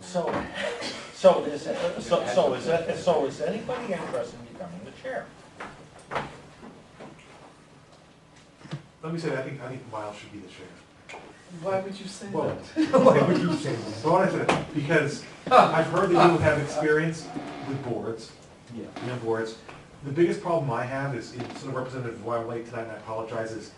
So, so is, so, so is, that- so is anybody interested in becoming the chair? Let me say, I think, I think Miles should be the chair. Why would you say Well, that? like what you say, so I said, because I've heard that you have experience with boards, Yeah. you know, boards. The biggest problem I have is, in sort of representative of why I'm late tonight, and I apologize, is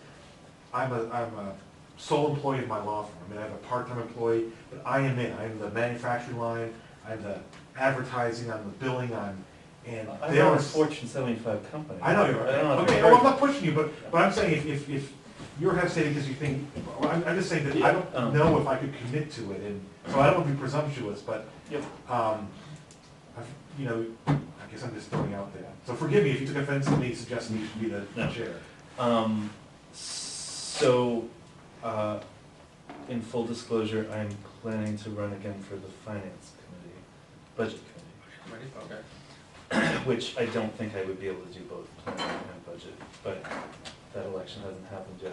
I'm a, I'm a sole employee of my law firm. I mean, I have a part-time employee, but I am in, I'm the manufacturing line, I'm the advertising, I'm the billing, I'm, and I they run are. a Fortune seventy-five company. I know you're, I don't know if okay, you're- well, I'm not pushing you, but, but I'm saying if, if, if you're hesitating because you think, well, I'm, I'm just saying that I Yeah, um. don't know if I could commit to it, and, so I don't want to be presumptuous, but, Yep. um, I've, you know, I guess I'm just throwing out there. So forgive me if you took offense to me suggesting you should be the No. chair. Um, so, uh, in full disclosure, I'm planning to run again for the finance committee, budget committee, Okay. which I don't think I would be able to do both planning and budget, but that election hasn't happened yet.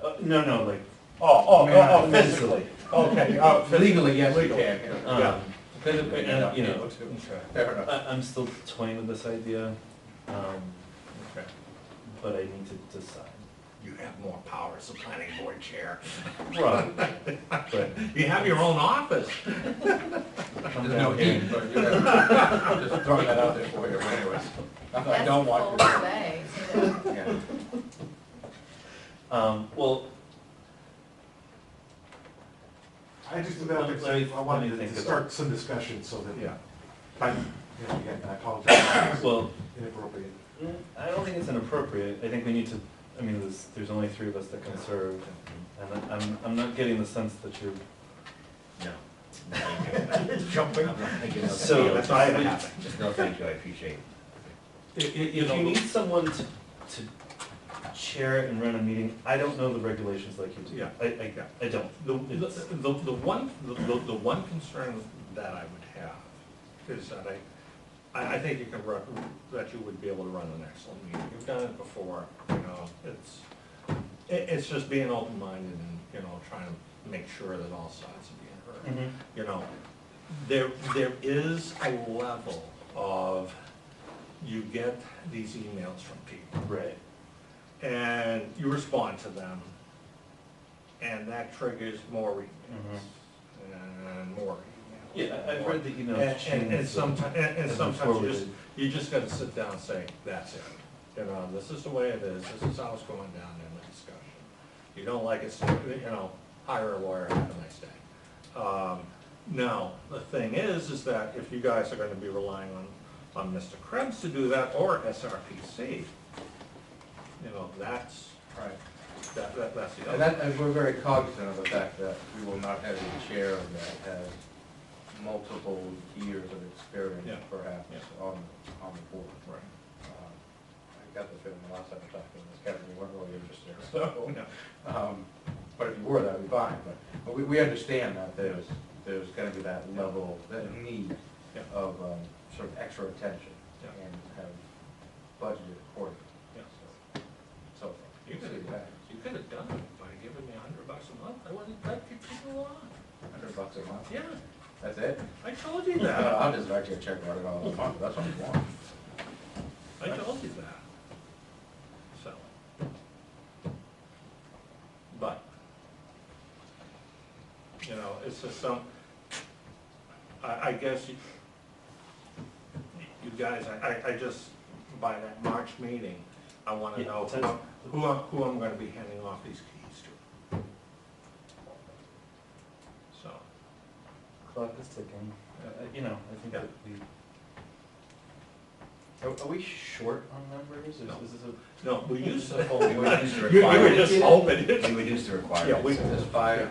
Could Uh, no, no, like, Oh, oh, oh, oh, Mentally. physically, okay, oh, uh, physically. Legally, yes, you Legal. can. um, physically, Yeah. and, you know, Okay, Uh, Fair enough. I, I'm still toying with this idea, um, Okay. but I need to decide. You have more power as a planning board chair. Right, but You have your own office. come There's no down here. heat, but you have, just throwing that out there for you, but anyways. Not that I don't want. That's the whole way, so that- you- Yeah. Um, well, I just, I Let me- I let me wanted think to- to about start some discussion so Yeah. that, I, you know, again, I apologize, if well, it's inappropriate. Mm, I don't think it's inappropriate. I think we need to, I mean, there's, there's only three of us that can serve, and I- I'm, I'm not getting the sense that you're, No. Jumping. So- So, that's not gonna happen. Just no, thank you, I appreciate it. if, you need someone to, to chair and run a meeting, I don't know the regulations like you do. Yeah. I, I, I don't. The, the, the the one, the, the the one concern that I would have is that I, I, I think you can run, that you would be able to run an excellent meeting. You've done it before, you know, it's, it, it's just being open-minded and, you know, trying to make sure that all sides are being Mhm. heard. you know, there, there is a level of, you get these emails from people, Right. and you respond to them, and that triggers more emails, and more emails. Yeah, I- I've read the And, emails and, and changed, so- sometimes, and, and and then sometimes you just, forwarded. you just gotta sit down and say, that's it. You know, this is the way it is, this is how it's going down in the discussion. You don't like it, so, you know, hire a lawyer, have a nice day. Um, now, the thing is, is that if you guys are gonna be relying on, on Mr. Krebs to do that, or SRPC, you know, that's, Right. that, that, that's the And other. that, and we're very cognizant of the fact that we will not have a chair that has multiple years of experience Yeah. perhaps Yeah. on, on the board. Right. Um, I got the feeling the last time I talked to you, this Kevin, you weren't really interested, so. Yeah. Um, But if you were, that'd be fine, but, but we, we understand that there's, there's gonna be that level, that need Yeah. of, um, sort of extra attention Yeah. and have budgeted accordingly. Yeah. So- So. You could have, Yeah. you could have done it by giving me a hundred bucks a month, I wouldn't have let people on. Hundred bucks a month, Yeah, that's it? I told you No, no, that. I'll just write you a check right all the month, that's what I want. I told you that. So. But, you know, it's just some, I, I guess you, you guys, I, I, I just, by that March meeting, I wanna Yeah, know who, that's- I'm- who I'm, who I'm gonna be handing off these keys to. So, Clock is ticking. Uh, You know, I think Yeah. that we. Are, are we short on numbers, No. or is this a? no, we used to, We reduced the you, you were requirement. just hoping, We reduced the Yeah, we- requirements, it was five,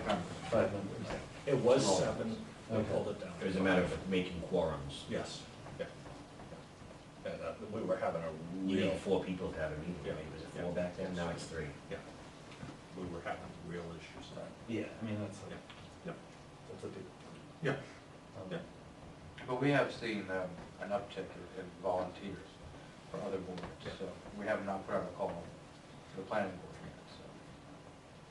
Five numbers. it was Roll. seven, we Okay. pulled it down. It was a matter of making quorums. Yes, yeah. Yeah, uh, we were having a You real, need four people to have a meeting, Yeah. right? Was it Yeah. four back then? Now Yeah. it's three. yeah, we were having real issues then. Yeah, I mean, that's a, Yeah. Yeah. that's a big. Yeah. um, Yeah. but we have seen um, an uptick in in volunteers for other boards, so we have not put out a call to the planning